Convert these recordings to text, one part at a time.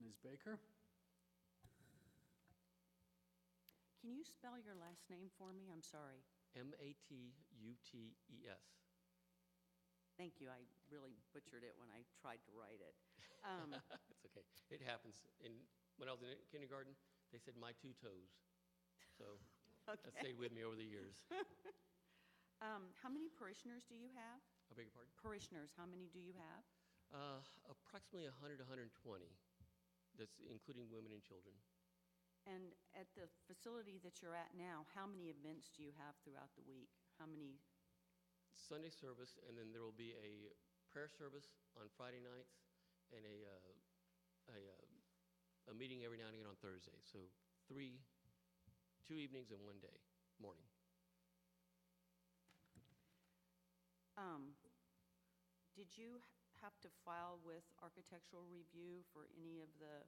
Ms. Baker? Can you spell your last name for me? I'm sorry. E M-A-T-U-T-E-S. Thank you, I really butchered it when I tried to write it. Um, It's okay. It happens. In, when I was in kindergarten, they said my two toes. So that Okay. stayed with me over the years. um, How many parishioners do you have? I beg your pardon? Parishioners, how many do you have? Uh, Approximately 100, 120, that's including women and children. And at the facility that you're at now, how many events do you have throughout the week? How many, Sunday service, and then there will be a prayer service on Friday nights and a, uh, a, uh, a meeting every now and again on Thursday. So three, two evenings and one day, morning. um, did you h- have to file with architectural review for any of the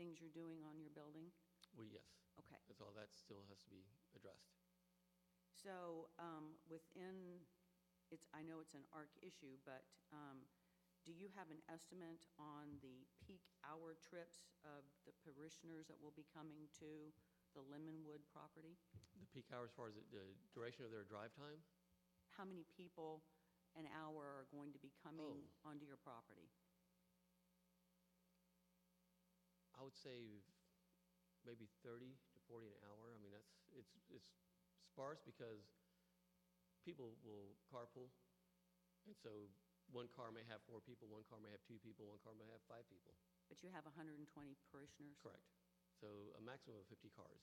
things you're doing on your building? Well, yes, Okay. that's all, that still has to be addressed. So um, within, it's, I know it's an ARC issue, but um, do you have an estimate on the peak hour trips of the parishioners that will be coming to the Lemonwood property? The peak hour as far as the- the duration of their drive time? How many people an hour are going to be coming Oh. onto your property? I would say maybe 30 to 40 an hour. I mean, that's, it's, it's sparse because people will carpool. And so one car may have four people, one car may have two people, one car may have five people. But you have 120 parishioners? Correct. So a maximum of 50 cars.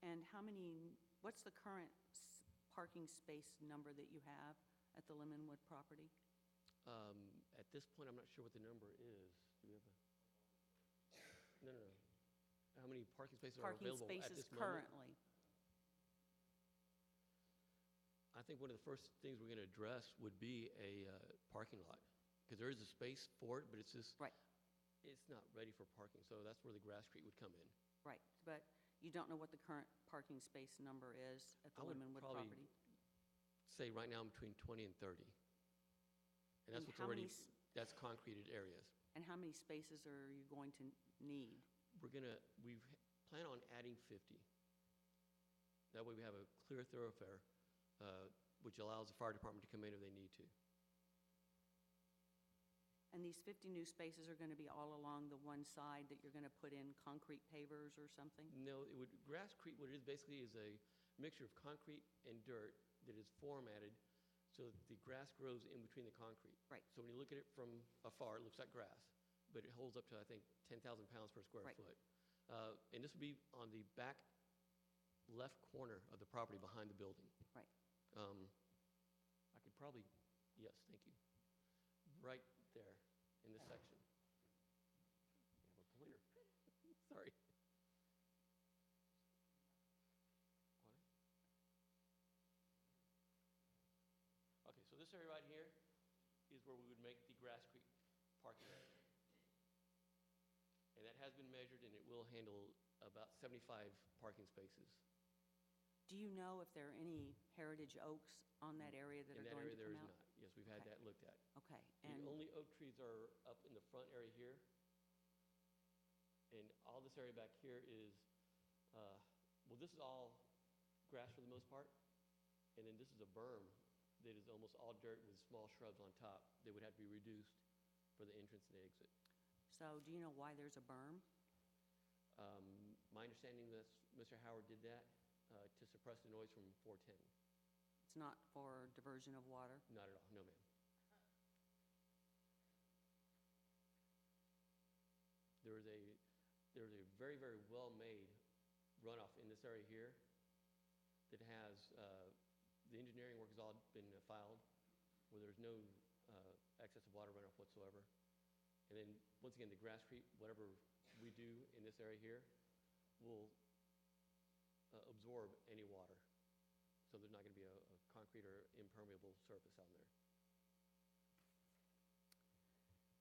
And how many, what's the current s- parking space number that you have at the Lemonwood property? Um, At this point, I'm not sure what the number is. Do we have a? No, no, no. How many parking spaces are Parking available at spaces this moment? currently? I think one of the first things we're going to address would be a uh, parking lot, because there is a space for it, but it's just, Right. it's not ready for parking, so that's where the grass creek would come in. Right, but you don't know what the current parking space number is at the I would Lemonwood probably- property? Say, right now, I'm between 20 and 30. And that's And what's how many already, s- that's concreted areas. And how many spaces are you going to need? We're going to, we plan on adding 50. That way, we have a clear thoroughfare, uh, which allows the fire department to come in if they need to. And these 50 new spaces are going to be all along the one side that you're going to put in concrete pavers or something? No, it would, grasscrete, what it is basically is a mixture of concrete and dirt that is formatted so that the grass grows in between the concrete. Right. So when you look at it from afar, it looks like grass, but it holds up to, I think, 10,000 pounds per square Right. foot. Uh, And this would be on the back left corner of the property behind the building. Right. Um, I could probably, yes, thank you. Right there, in this section. You have a pointer. Sorry. What? Okay, so this area right here is where we would make the Grass Creek parking area. And that has been measured, and it will handle about 75 parking spaces. Do you know if there are any heritage oaks on that area that are In that going to area, there come is out? not. Yes, we've had Okay. that looked at. Okay, The and, only oak trees are up in the front area here. And all this area back here is, uh, well, this is all grass for the most part. And then this is a berm that is almost all dirt with small shrubs on top that would have to be reduced for the entrance and exit. so do you know why there's a berm? Um, My understanding is Mr. Howard did that uh, to suppress the noise from 410. It's not for diversion of water? Not at all, no ma'am. There is a, there is a very, very well-made runoff in this area here that has, uh, the engineering work has all been filed, where there's no uh, excess of water runoff whatsoever. And then, once again, the grass creep, whatever we do in this area here, will uh, absorb any water. So there's not going to be a, a concrete or impermeable surface on there.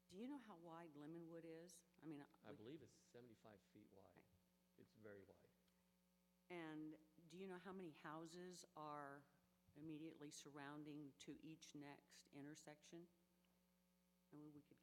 Do you know how wide Lemonwood is? I mean, I we- believe it's 75 feet wide. Okay. It's very wide. And do you know how many houses are immediately surrounding to each next intersection? And we- we could